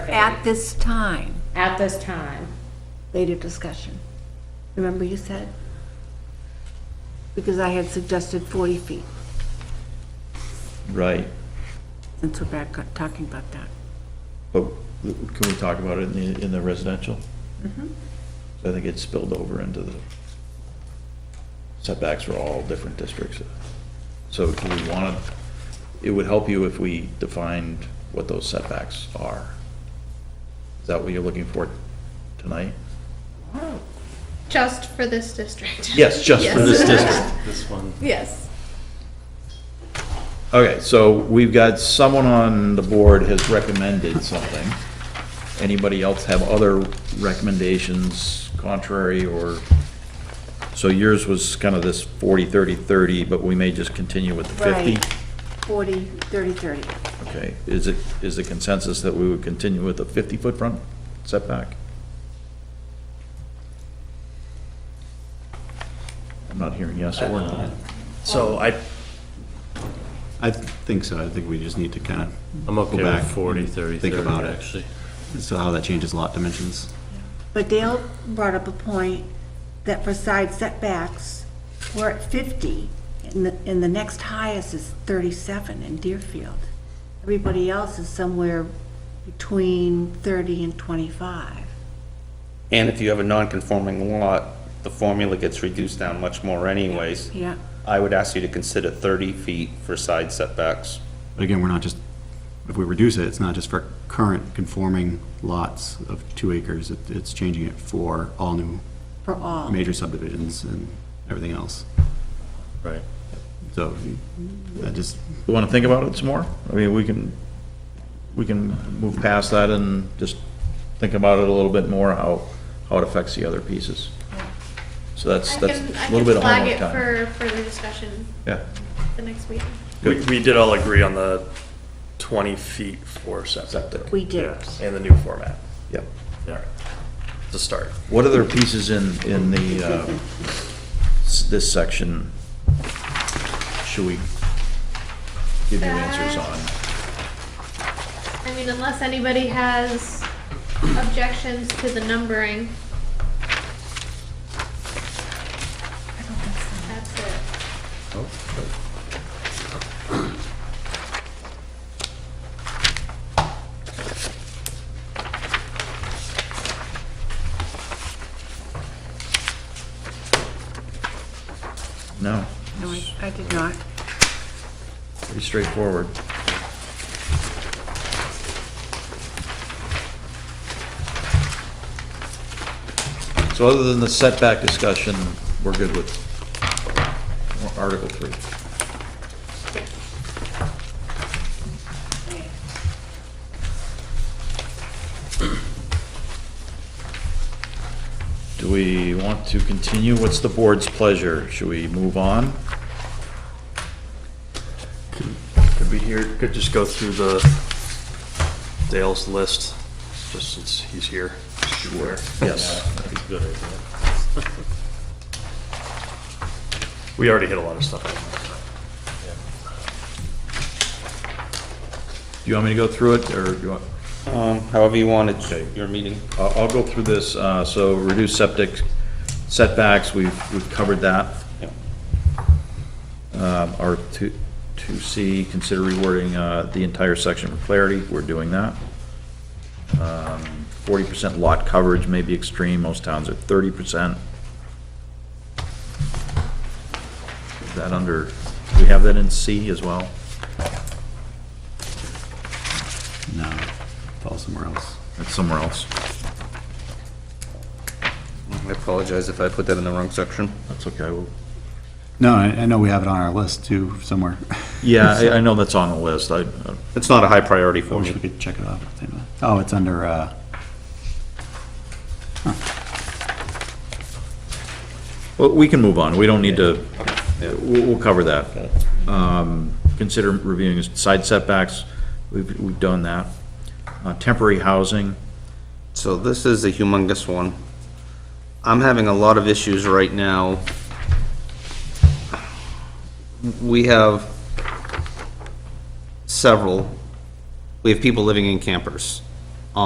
At this time, at this time. later discussion. Remember you said? Because I had suggested 40 feet, Right, since we're back on- talking about that. but can we talk about it in the, in the residential? I think it spilled over into the setbacks for all different districts. So do we want to, it would help you if we defined what those setbacks are. Is that what you're looking for tonight? Just for this district. Yes, just for this district. This one. Yes. Okay, so we've got someone on the board has recommended something. Anybody else have other recommendations contrary or? So yours was kind of this 40, 30, 30, but we may just continue with the 50? Right. 40, 30, 30. Okay, is it, is the consensus that we would continue with a 50-foot front setback? I'm not hearing yes or no. So I. I think so. I think we just need to kind of. I'm okay Go back with 40, 30, think 30, about it. actually. So how that changes lot dimensions. But Dale brought up a point that for side setbacks, we're at 50, and the, and the next highest is 37 in Deerfield. Everybody else is somewhere between 30 and 25. And if you have a non-conforming lot, the formula gets reduced down much more anyways. Yeah. I would ask you to consider 30 feet for side setbacks. But again, we're not just, if we reduce it, it's not just for current conforming lots of two acres. It- It's changing it for all new For all. major subdivisions and everything else. Right. So I just, You want to think about it some more? I mean, we can, we can move past that and just think about it a little bit more, how, how it affects the other pieces. So that's, I that's can- I a little bit of can homework time. Flag it for further discussion Yeah, the next week. We, we did all agree on the 20 feet for septic. Septic. We did. Yeah, And the new format. yeah. All right. To start. What other pieces in, in the, uh, s- this section should we give you answers on? I mean, unless anybody has objections to the numbering. That's it. No, No, I- I did not. pretty straightforward. So other than the setback discussion, we're good with Article 3. Do we want to continue? What's the board's pleasure? Should we move on? Could we here, could just go through the Dale's list, just since he's here. Sure. Yes. We already hit a lot of stuff. Do you want me to go through it, or do you want? Um, However you want it, your meeting. I'll, I'll go through this, uh, so reduce septic setbacks, we've, we've covered that. Yeah. Um, our two, two C, consider rewording, uh, the entire section for clarity, we're doing that. Um, Forty percent lot coverage may be extreme, most towns are thirty percent. That under, we have that in C as well? no, fall somewhere else. That's somewhere else. I apologize if I put that in the wrong section. That's okay, we'll No, I I know we have it on our list too, somewhere. Yeah, I, I know that's on the list, I, uh, I- It's not a high priority I for wish me. we could check it off. Oh, it's under, uh, well, we can move on, we don't need to, uh, we'll, we'll cover that. Um, consider reviewing side setbacks, we've, we've done that. Uh, temporary housing, So this is a humongous one. I'm having a lot of issues right now. We have several, we have people living in campers.